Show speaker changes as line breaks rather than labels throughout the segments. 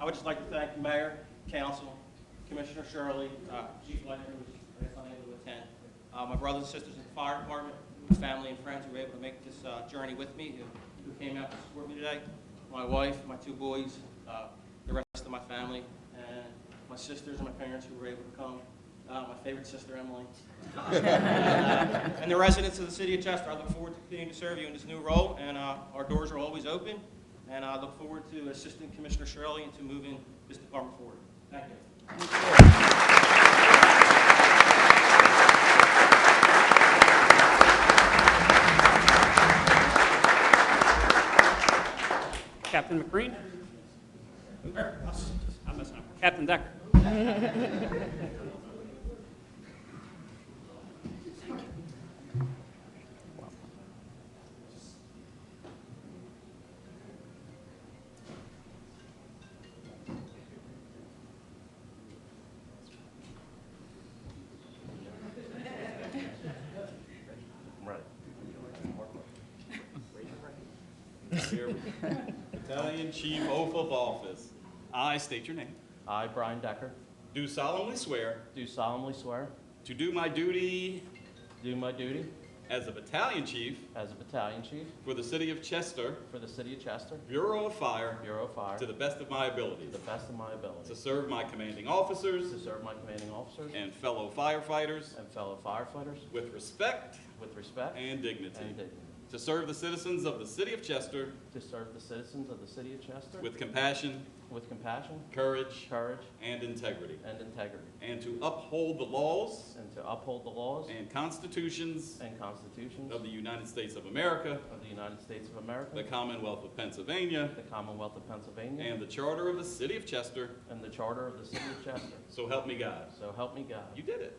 I would just like to thank the Mayor, Council, Commissioner Shirley, uh, Chief Leonard, who was unable to attend, uh, my brothers and sisters in the fire department, my family and friends who were able to make this uh, journey with me, who- who came out to support me today, my wife, my two boys, uh, the rest of my family, and my sisters and my parents who were able to come, uh, my favorite sister, Emily. And the residents of the city of Chester, I look forward to continuing to serve you in this new role, and uh, our doors are always open, and I look forward to assisting Commissioner Shirley and to moving this department forward. Thank you.
Captain McBreen? I'm messing up. Captain Decker?
Battalion Chief Oath of Office.
I state your name.
I, Brian Decker,
Do solemnly swear
do solemnly swear
to do my duty
to do my duty
as a battalion chief
as a battalion chief
for the city of Chester,
for the city of Chester,
Bureau of Fire,
Bureau of Fire,
to the best of my
to
abilities,
the best of my
to
ability,
serve my commanding
to
officers
serve my commanding officers
and fellow firefighters
and fellow firefighters
with respect
with respect and
and dignity,
dignity,
to serve the citizens of the city of Chester
to serve the citizens of the city of Chester
with compassion,
with compassion,
courage,
courage,
and integrity,
and integrity,
and to uphold the laws
and to uphold the laws
and constitutions
and constitutions
of the United States of America,
of the United States of
the
America,
Commonwealth of Pennsylvania,
the Commonwealth of Pennsylvania,
And the Charter of the City of Chester,
and the charter of the city of Chester.
so help me God.
So help me God.
You did it.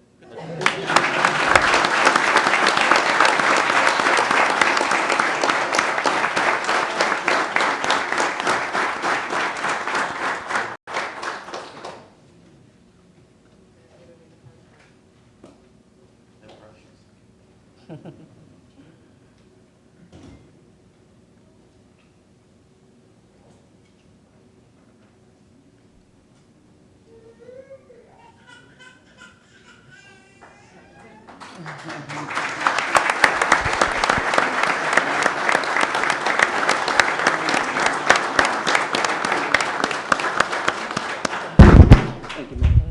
Thank you, ma'am.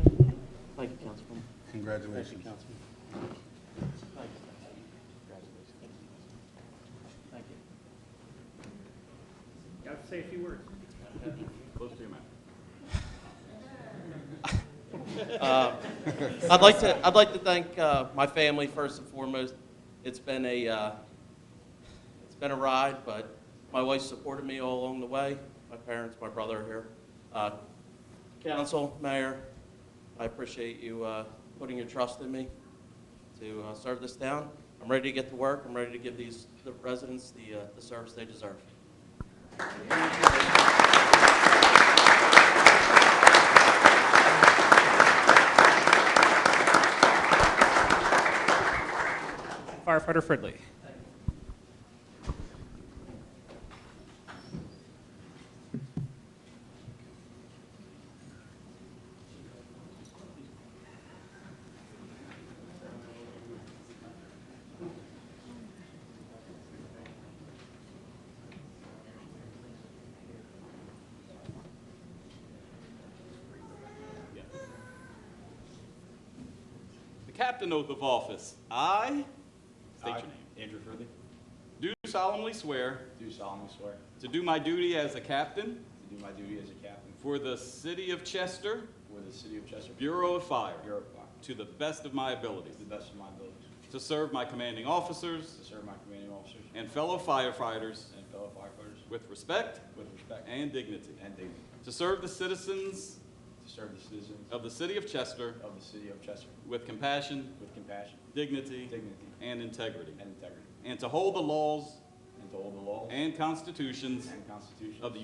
Thank you, Councilman. Thank you,
Congratulations.
Councilman. Thank you. Congratulations. Thank you.
Got to say a few words.
Close to your mouth.
I'd like to, I'd like to thank uh, my family first and foremost. It's been a, uh, it's been a ride, but my wife supported me all along the way. My parents, my brother are here. Uh, Council, Mayor, I appreciate you uh, putting your trust in me to uh, serve this town. I'm ready to get to work. I'm ready to give these, the residents the, uh, the service they deserve.
Firefighter Fridley.
The Captain Oath of Office, I, state your
I,
name,
Andrew Fridley,
do solemnly swear
do solemnly swear to
to do my duty as a captain
do my duty as a captain
for the City of Chester,
for the city of Chester,
Bureau of Fire,
Bureau of Fire,
to the best of my abilities,
to the best of my abilities,
to serve my commanding officers
to serve my commanding officers
and fellow firefighters
and fellow firefighters
with respect
with respect
and dignity,
and dignity,
to serve the citizens
to serve the citizens
of the City of Chester
of the city of Chester
with compassion,
with compassion,
dignity,
dignity,
and integrity,
and integrity,
and to hold the laws
and to hold the law
and constitutions
and constitution
of the